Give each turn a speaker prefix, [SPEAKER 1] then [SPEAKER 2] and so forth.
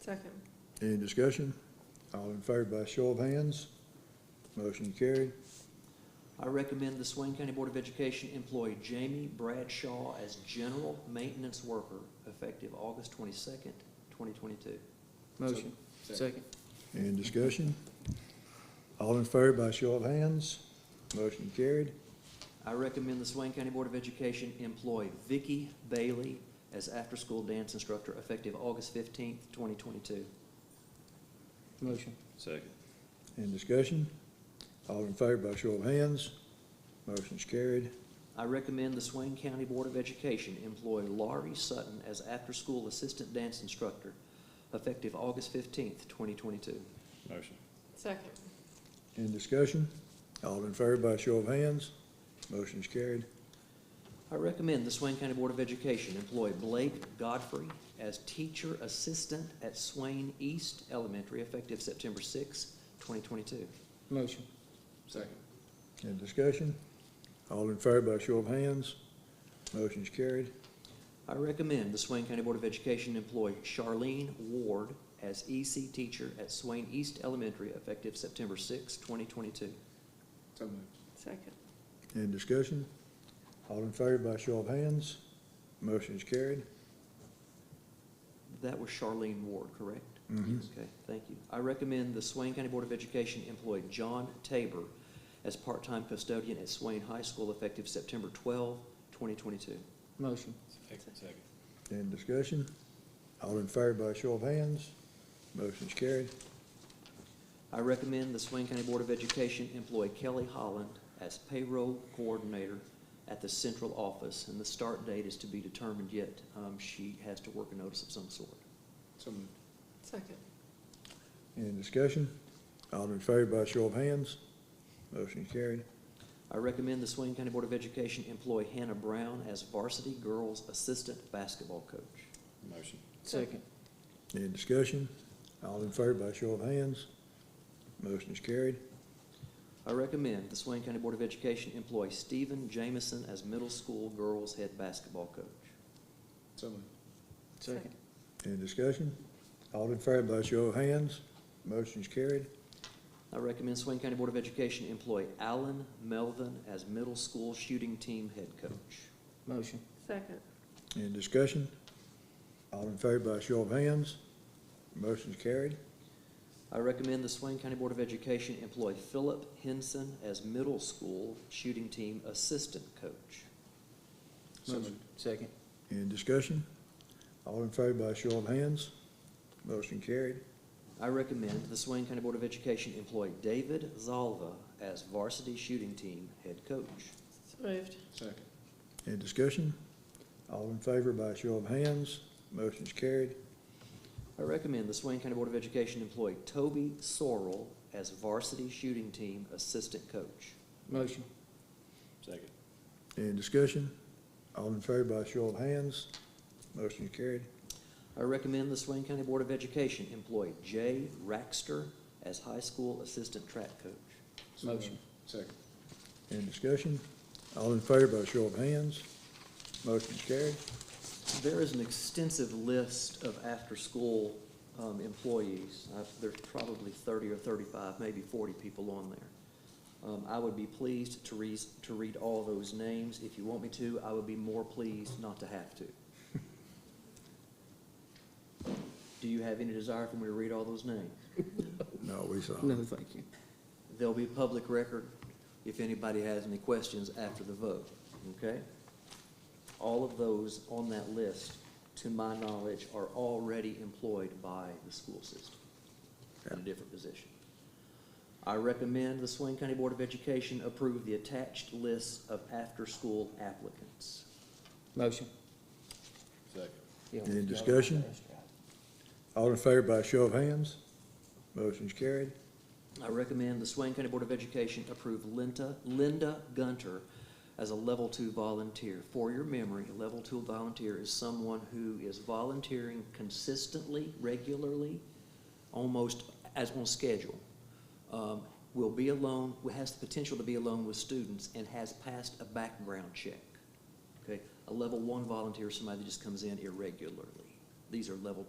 [SPEAKER 1] Second.
[SPEAKER 2] Any discussion? All in favor by show of hands? Motion carried.
[SPEAKER 3] I recommend the Swain County Board of Education employ Jamie Bradshaw as general maintenance worker effective August twenty-second, twenty twenty-two.
[SPEAKER 4] Motion. Second.
[SPEAKER 2] Any discussion? All in favor by show of hands? Motion carried.
[SPEAKER 3] I recommend the Swain County Board of Education employ Vicky Bailey as after-school dance instructor effective August fifteenth, twenty twenty-two.
[SPEAKER 4] Motion.
[SPEAKER 5] Second.
[SPEAKER 2] Any discussion? All in favor by show of hands? Motion's carried.
[SPEAKER 3] I recommend the Swain County Board of Education employ Laurie Sutton as after-school assistant dance instructor effective August fifteenth, twenty twenty-two.
[SPEAKER 5] Motion.
[SPEAKER 1] Second.
[SPEAKER 2] Any discussion? All in favor by show of hands? Motion's carried.
[SPEAKER 3] I recommend the Swain County Board of Education employ Blake Godfrey as teacher assistant at Swain East Elementary effective September 6, 2022.
[SPEAKER 4] Motion.
[SPEAKER 2] Any discussion? All in favor by show of hands? Motion's carried.
[SPEAKER 3] I recommend the Swain County Board of Education employ Charlene Ward as EC teacher at Swain East Elementary effective September 6, 2022.
[SPEAKER 1] Second.
[SPEAKER 2] Any discussion? All in favor by show of hands? Motion's carried.
[SPEAKER 3] That was Charlene Ward, correct?
[SPEAKER 2] Mhm.
[SPEAKER 3] Okay, thank you. I recommend the Swain County Board of Education employ John Tabor as part-time custodian at Swain High School effective September 12, 2022.
[SPEAKER 4] Motion.
[SPEAKER 5] Second.
[SPEAKER 2] Any discussion? All in favor by show of hands? Motion's carried.
[SPEAKER 3] I recommend the Swain County Board of Education employ Kelly Holland as payroll coordinator at the central office, and the start date is to be determined yet. Um, She has to work a notice of some sort.
[SPEAKER 1] Second.
[SPEAKER 2] Any discussion? All in favor by show of hands? Motion's carried.
[SPEAKER 3] I recommend the Swain County Board of Education employ Hannah Brown as varsity girls assistant basketball coach.
[SPEAKER 5] Motion.
[SPEAKER 4] Second.
[SPEAKER 2] Any discussion? All in favor by show of hands? Motion's carried.
[SPEAKER 3] I recommend the Swain County Board of Education employ Stephen Jamison as middle school girls head basketball coach.
[SPEAKER 4] Second.
[SPEAKER 2] Any discussion? All in favor by show of hands? Motion's carried.
[SPEAKER 3] I recommend Swain County Board of Education employ Alan Melvin as middle school shooting team head coach.
[SPEAKER 4] Motion.
[SPEAKER 1] Second.
[SPEAKER 2] Any discussion? All in favor by show of hands? Motion's carried.
[SPEAKER 3] I recommend the Swain County Board of Education employ Philip Henson as middle school shooting team assistant coach.
[SPEAKER 4] Motion. Second.
[SPEAKER 2] Any discussion? All in favor by show of hands? Motion carried.
[SPEAKER 3] I recommend the Swain County Board of Education employ David Zalva as varsity shooting team head coach.
[SPEAKER 1] So moved.
[SPEAKER 2] Any discussion? All in favor by show of hands? Motion's carried.
[SPEAKER 3] I recommend the Swain County Board of Education employ Toby Sorrell as varsity shooting team assistant coach.
[SPEAKER 4] Motion.
[SPEAKER 5] Second.
[SPEAKER 2] Any discussion? All in favor by show of hands? Motion's carried.
[SPEAKER 3] I recommend the Swain County Board of Education employ Jay Raxter as high school assistant track coach.
[SPEAKER 4] Motion.
[SPEAKER 2] Any discussion? All in favor by show of hands? Motion's carried.
[SPEAKER 3] There is an extensive list of after-school um, employees. I- There's probably 30 or 35, maybe 40 people on there. Um, I would be pleased to read, to read all those names. If you want me to, I would be more pleased not to have to. Do you have any desire for me to read all those names?
[SPEAKER 2] No, we saw.
[SPEAKER 4] No, thank you.
[SPEAKER 3] They'll be public record if anybody has any questions after the vote, okay? All of those on that list, to my knowledge, are already employed by the school system in a different position. I recommend the Swain County Board of Education approve the attached list of after-school applicants.
[SPEAKER 4] Motion.
[SPEAKER 5] Second.
[SPEAKER 4] Yeah.
[SPEAKER 2] Any discussion? All in favor by show of hands? Motion's carried.
[SPEAKER 3] I recommend the Swain County Board of Education approve Linda, Linda Gunter as a level two volunteer. For your memory, a level two volunteer is someone who is volunteering consistently, regularly, almost as on schedule. Um, will be alone, has the potential to be alone with students and has passed a background check. Okay, a level one volunteer is somebody that just comes in irregularly. These are level